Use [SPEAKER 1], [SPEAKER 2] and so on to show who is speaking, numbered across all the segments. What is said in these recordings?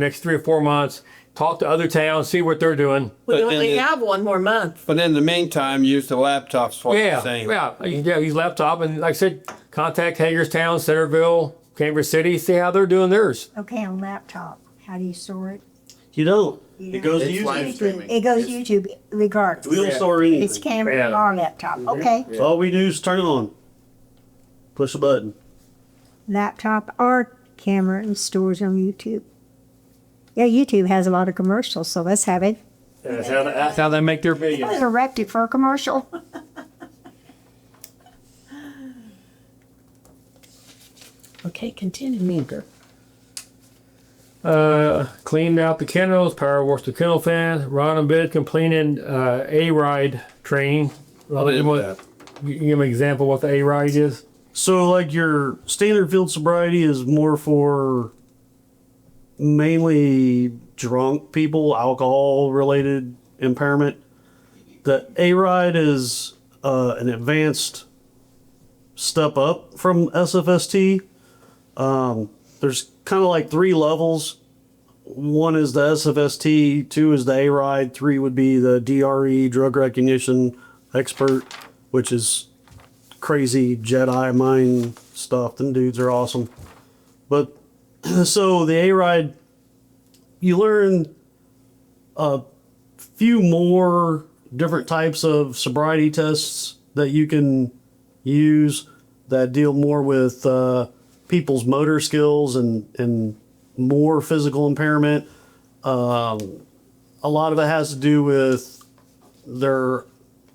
[SPEAKER 1] next three or four months, talk to other towns, see what they're doing.
[SPEAKER 2] We
[SPEAKER 3] But
[SPEAKER 2] only
[SPEAKER 3] then it-
[SPEAKER 2] have one more month.
[SPEAKER 3] But in the meantime, use the laptops for the
[SPEAKER 1] Yeah,
[SPEAKER 3] same.
[SPEAKER 1] yeah, yeah. Use laptop and like I said, contact Hagerstown, Centerville, Cambridge City, see how they're doing theirs.
[SPEAKER 4] Okay, on laptop, how do you store it?
[SPEAKER 5] You don't.
[SPEAKER 4] You
[SPEAKER 5] It
[SPEAKER 4] know?
[SPEAKER 5] goes to
[SPEAKER 6] It's
[SPEAKER 5] YouTube.
[SPEAKER 6] live streaming.
[SPEAKER 4] It goes
[SPEAKER 6] It's-
[SPEAKER 4] YouTube regardless.
[SPEAKER 5] We don't
[SPEAKER 6] Yeah.
[SPEAKER 5] store
[SPEAKER 4] It's
[SPEAKER 5] anything.
[SPEAKER 4] camera
[SPEAKER 1] Yeah.
[SPEAKER 4] or laptop,
[SPEAKER 6] Mm-hmm.
[SPEAKER 4] okay?
[SPEAKER 5] So All we do is turn it on. Push a button.
[SPEAKER 4] Laptop or camera and stores on YouTube. Yeah, YouTube has a lot of commercials, so let's have it.
[SPEAKER 1] That's how, they- that's how they make their videos.
[SPEAKER 4] Interrupted for a commercial.
[SPEAKER 6] Uh.
[SPEAKER 2] Okay, continue, Meeker.
[SPEAKER 1] Uh, cleaned out the kennels, power washed the kennel fan. Ron and Bid completed uh, a ride training. Well,
[SPEAKER 3] What is
[SPEAKER 1] what-
[SPEAKER 3] that?
[SPEAKER 1] you give me an example what the a ride is.
[SPEAKER 5] So, like your standard field sobriety is more for mainly drunk people, alcohol related impairment. The A ride is uh, an advanced step up from SFST. Um, there's kind of like three levels. One is the SFST, two is the A ride, three would be the DRE, drug recognition expert, which is crazy Jedi mind stuff. Them dudes are awesome. But so the A ride, you learn a few more different types of sobriety tests that you can use that deal more with uh, people's motor skills and and more physical impairment. Um, a lot of it has to do with their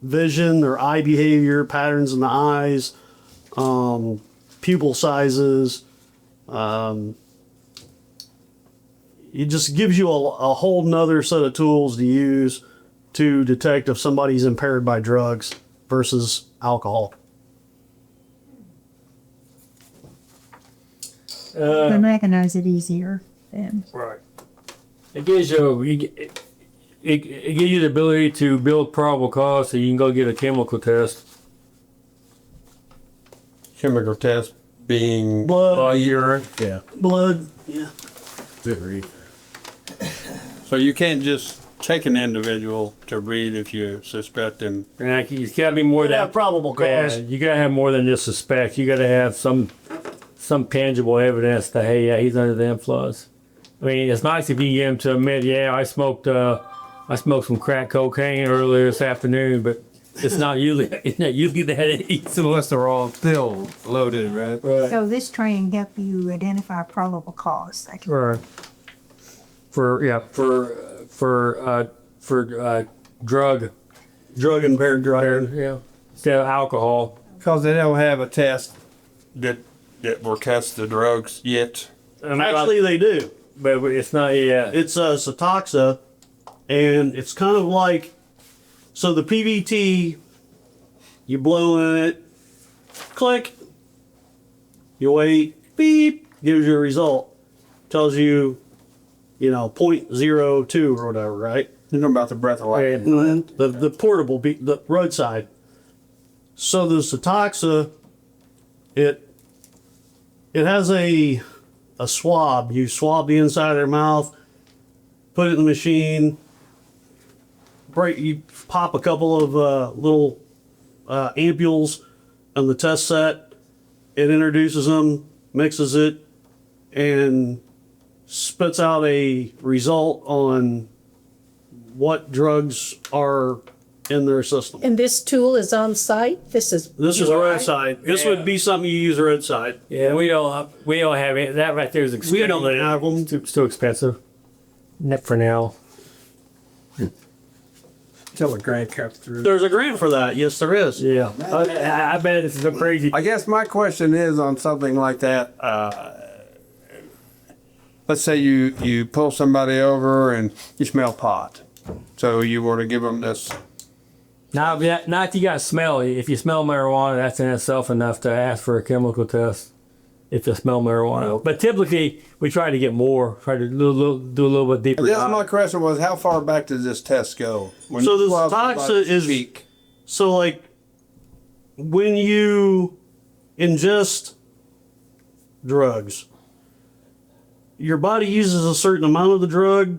[SPEAKER 5] vision, their eye behavior, patterns in the eyes, um, pupil sizes. Um, it just gives you a, a whole nother set of tools to use to detect if somebody's impaired by drugs versus alcohol.
[SPEAKER 4] They recognize it easier then.
[SPEAKER 1] Right. It gives you, you g- it, it, it gives you the ability to build probable cause so you can go get a chemical test.
[SPEAKER 3] Chemical test being uh,
[SPEAKER 5] Blood.
[SPEAKER 3] urine. Yeah.
[SPEAKER 5] Blood, yeah.
[SPEAKER 3] So you can't just take an individual to read if you suspect them.
[SPEAKER 1] And like, it's got to be more than
[SPEAKER 5] Yeah, probable
[SPEAKER 1] Yeah,
[SPEAKER 5] cause.
[SPEAKER 1] you gotta have more than just suspect. You gotta have some some tangible evidence that hey, yeah, he's under the influence. I mean, it's nice if you can get him to admit, yeah, I smoked uh, I smoked some crack cocaine earlier this afternoon, but it's not usually it's not usually that easy.
[SPEAKER 6] Unless they're all still loaded, right?
[SPEAKER 4] So this training help you identify probable cause. Like,
[SPEAKER 1] For for yeah for for uh, for uh, drug
[SPEAKER 5] Drug impaired driver.
[SPEAKER 1] yeah instead of alcohol.
[SPEAKER 6] Because they don't have a test.
[SPEAKER 3] That that will test the drugs yet.
[SPEAKER 5] Actually, they do.
[SPEAKER 1] but it's not yeah.
[SPEAKER 5] It's uh, Sotoxa, and it's kind of like so the PVT, you blow in it, click, you wait, beep, gives you a result. Tells you, you know, 0.02 or whatever, right?
[SPEAKER 3] You know about the breath of life.
[SPEAKER 1] And
[SPEAKER 5] The, the portable, be- the roadside. So the Sotoxa, it it has a a swab. You swab the inside of their mouth, put it in the machine. Break. You pop a couple of uh, little uh, ampules on the test set. It introduces them, mixes it, and spits out a result on what drugs are in their system.
[SPEAKER 2] And this tool is on site? This is.
[SPEAKER 5] This is roadside. This
[SPEAKER 1] Yeah.
[SPEAKER 5] would be something you use roadside.
[SPEAKER 1] Yeah, we don't we don't have it. That right there is expensive.
[SPEAKER 5] We don't have them.
[SPEAKER 1] It's too expensive. Net for now.
[SPEAKER 6] Till the grant comes through.
[SPEAKER 5] There's a grant for that. Yes, there is.
[SPEAKER 1] Yeah, I, I bet this is so crazy.
[SPEAKER 6] I guess my question is on something like that. Uh, let's say you, you pull somebody over and you smell pot. So you were to give them this.
[SPEAKER 1] Not that, not if you got smell. If you smell marijuana, that's in itself enough to ask for a chemical test. If you smell marijuana, but typically we try to get more, try to do a little, do a little bit deeper.
[SPEAKER 6] Yes,
[SPEAKER 1] dive.
[SPEAKER 6] my question was how far back does this test go? When
[SPEAKER 5] So this
[SPEAKER 6] Well,
[SPEAKER 5] toxa is-
[SPEAKER 6] speak.
[SPEAKER 5] So, like, when you ingest drugs, your body uses a certain amount of the drug